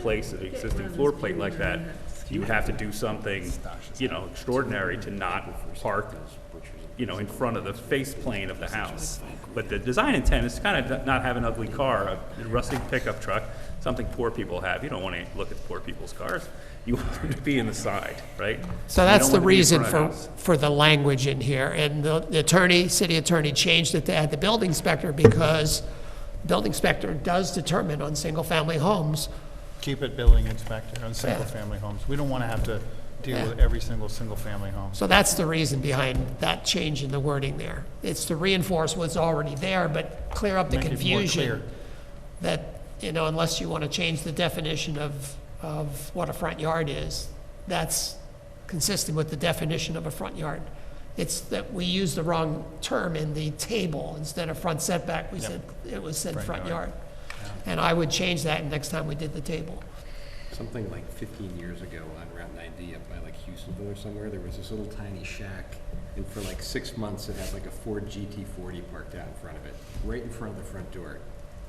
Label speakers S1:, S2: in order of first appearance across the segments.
S1: place of the existing floor plate like that, you would have to do something, you know, extraordinary to not park, you know, in front of the face plane of the house. But the design intent is kind of not have an ugly car, a rusty pickup truck, something poor people have. You don't want to look at poor people's cars. You want them to be in the side, right?
S2: So
S1: You
S2: that's
S1: don't want to
S2: the
S1: be in
S2: reason
S1: front of
S2: for,
S1: the house.
S2: for the language in here. And the the attorney, city attorney changed it to add the building inspector because building inspector does determine on single-family homes.
S3: Keep it building inspector on
S2: Yeah.
S3: single-family homes. We don't want to have to
S2: Yeah.
S3: deal with every single single-family home.
S2: So that's the reason behind that change in the wording there. It's to reinforce what's already there, but clear up the
S3: Make it more
S2: confusion
S3: clear.
S2: that, you know, unless you want to change the definition of, of what a front yard is, that's consistent with the definition of a front yard. It's that we used the wrong term in the table. Instead of front setback, we said, it was said front yard. And I would change that next time we did the table.
S4: something like 15 years ago on Route 90 up by like Houstonville or somewhere, there was this little tiny shack, and for like six months, it had like a Ford GT40 parked out in front of it, right in front of the front door.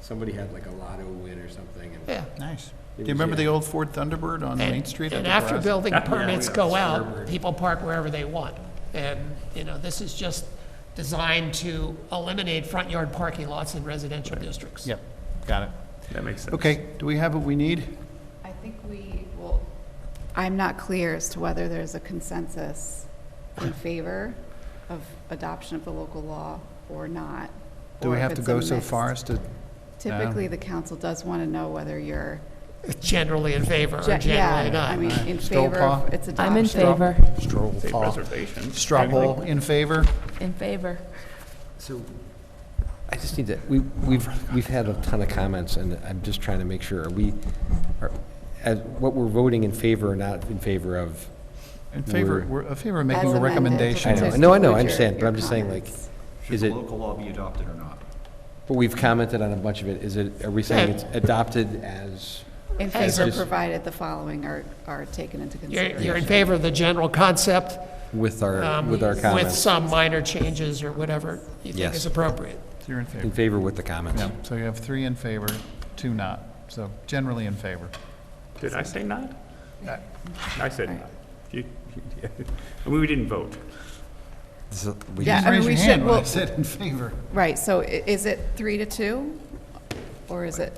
S4: Somebody had like a lotto win or something, and
S2: Yeah.
S3: Nice. Do
S4: It
S3: you
S4: was-
S3: remember the
S4: yeah.
S3: old Ford Thunderbird on
S2: And-
S3: Main Street?
S2: And
S3: at the
S2: after
S3: garage?
S2: building
S1: That- yeah,
S2: permits go out,
S4: Starboard.
S2: people park wherever they want. And, you know, this is just designed to eliminate front yard parking lots in residential districts.
S3: Yep, got it.
S1: That makes sense.
S3: Okay, do we have what we need?
S5: I think we will, I'm not clear as to whether there's a consensus in favor of adoption of the local law or not.
S3: Do we
S5: or if
S3: have to
S5: it's
S3: go
S5: a
S3: so
S5: mixed.
S3: far as to,
S5: Typically, the council does want to know whether you're,
S2: Generally in favor or generally
S5: yeah, I
S2: not.
S5: mean, in
S3: Straw
S5: favor of
S3: poll?
S5: its adoption.
S6: I'm in favor,
S3: stroll,
S1: Say
S3: Paul?
S1: preservation.
S3: straw poll in favor?
S6: in favor.
S4: So, I just need to, we, we've, we've had a ton of comments, and I'm just trying to make sure, are we, are, as, what we're voting in favor or not in favor of?
S3: In favor,
S4: We're-
S3: we're in favor of
S5: As
S3: making a
S5: amended,
S3: recommendation.
S4: I know,
S5: just
S4: no, I know, I
S5: include your-
S4: understand, but
S5: your
S4: I'm just saying, like,
S5: comments.
S7: Should
S4: Is
S7: the
S4: it-
S7: local law be adopted or not?
S4: but we've commented on a bunch of it, is it, are we saying it's adopted as?
S5: In
S2: As
S5: favor,
S4: a-
S5: provided the following are, are taken into
S2: You're,
S5: consideration.
S2: you're in favor of the general concept.
S4: With our,
S2: um,
S4: with our
S2: With
S4: comments.
S2: some minor changes or whatever you think
S4: Yes.
S2: is appropriate.
S3: You're in
S4: In
S3: favor.
S4: favor with the comments.
S3: Yeah, so you have three in favor, two not, so generally in favor.
S1: Did I say not?
S3: Uh,
S1: I said not. You- you- I mean, we didn't vote.
S4: So we
S5: Yeah,
S3: Just
S5: I mean,
S3: raise
S5: we
S3: your
S5: should-
S3: hand when I
S5: well-
S3: said in favor.
S5: Right, so i- is it three to two? Or is it,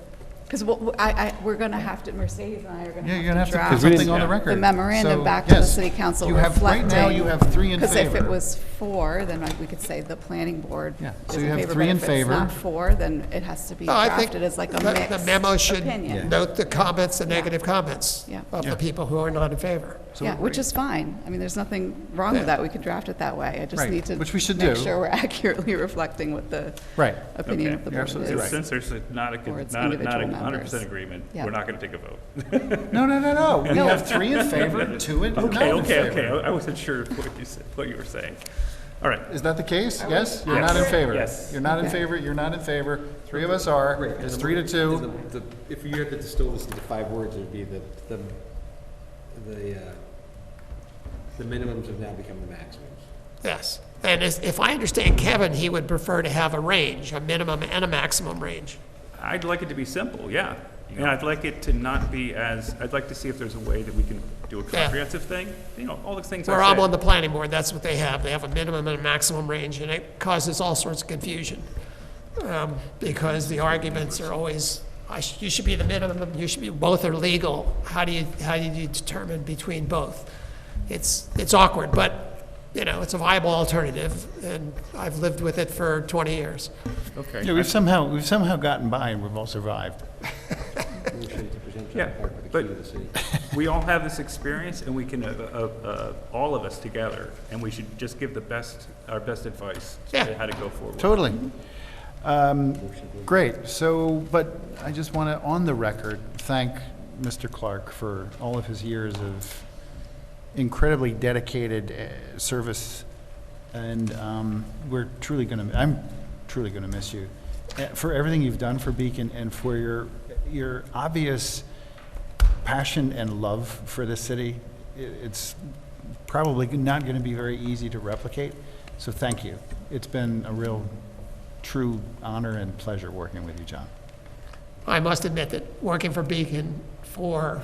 S5: because I, I, we're going to have to, Mercedes and I are going to
S3: Yeah, you're gonna have
S5: have to
S3: to put
S5: draft.
S3: something on the
S1: Yeah.
S3: record.
S5: the memorandum
S3: So,
S5: back to the
S3: yes,
S5: city council
S3: you have-
S5: reflecting.
S3: Right now, you have three in favor.
S5: Because if it was four, then like, we could say the planning board
S3: Yeah,
S5: is
S3: so you
S5: in
S3: have
S5: favor,
S3: three
S5: but
S3: in
S5: if it's not
S3: favor.
S5: four, then it has to be
S2: No, I think
S5: drafted as like a
S2: the-
S5: mixed
S2: The memo should
S5: opinion.
S2: note the comments, the negative comments
S5: Yeah.
S2: of
S3: Yeah.
S2: the people who are not in favor.
S5: Yeah, which is fine. I mean, there's nothing wrong
S2: Yeah.
S5: with that. We could draft it that way. I just
S3: Right,
S5: need to.
S3: which we should
S5: Make
S3: do.
S5: sure we're accurately reflecting what the
S3: Right.
S5: opinion
S1: Okay.
S5: of the
S3: You're
S5: board
S3: absolutely
S5: is.
S3: right.
S1: Since there's a- not a,
S5: Or it's
S1: not a, not a
S5: individual
S1: hundred percent
S5: members.
S1: agreement,
S5: Yeah.
S1: we're not gonna take a vote.
S3: No, no, no, no. We have three in favor, two in, not
S1: Okay,
S3: in
S1: okay, okay.
S3: favor.
S1: I I wasn't sure what you said, what you were saying. All right.
S3: Is that the case? Yes? You're not in
S1: Yes.
S3: favor?
S1: Yes.
S3: You're not in favor, you're not in favor. Three of us are. It's three to two.
S4: The- the- If you had to distill this into five words, it would be the, the, the, uh, the minimums have now become the maximums.
S2: Yes, and as- if I understand Kevin, he would prefer to have a range, a minimum and a maximum range.
S1: I'd like it to be simple, yeah. And I'd like it to not be as, I'd like to see if there's a way that we can do a comprehensive thing. You know, all the things
S2: Where I'm
S1: I
S2: on
S1: said.
S2: the planning board, that's what they have, they have a minimum and a maximum range, and it causes all sorts of confusion. Um, Because the arguments are always, I sh- you should be the minimum, you should be, both are legal, how do you, how do you determine between both? It's, it's awkward, but, you know, it's a viable alternative, and I've lived with it for 20 years.
S1: Okay.
S3: Yeah, we've somehow, we've somehow gotten by and we've all survived.
S4: Motion to present John
S1: Yeah,
S4: Park with the
S1: but-
S4: key to the city.
S1: We all have this experience and we can, uh, uh, uh, all of us together, and we should just give the best, our best advice
S2: Yeah.
S1: to how to go forward.
S3: Totally. Um, Great, so, but I just want to, on the record, thank Mr. Clark for all of his years of incredibly dedicated uh, service, and um, we're truly going to, I'm truly going to miss you, uh, for everything you've done for Beacon and for your, your obvious passion and love for the city. I- It's probably not going to be very easy to replicate, so thank you. It's been a real, true honor and pleasure working with you, John.
S2: I must admit that working for Beacon for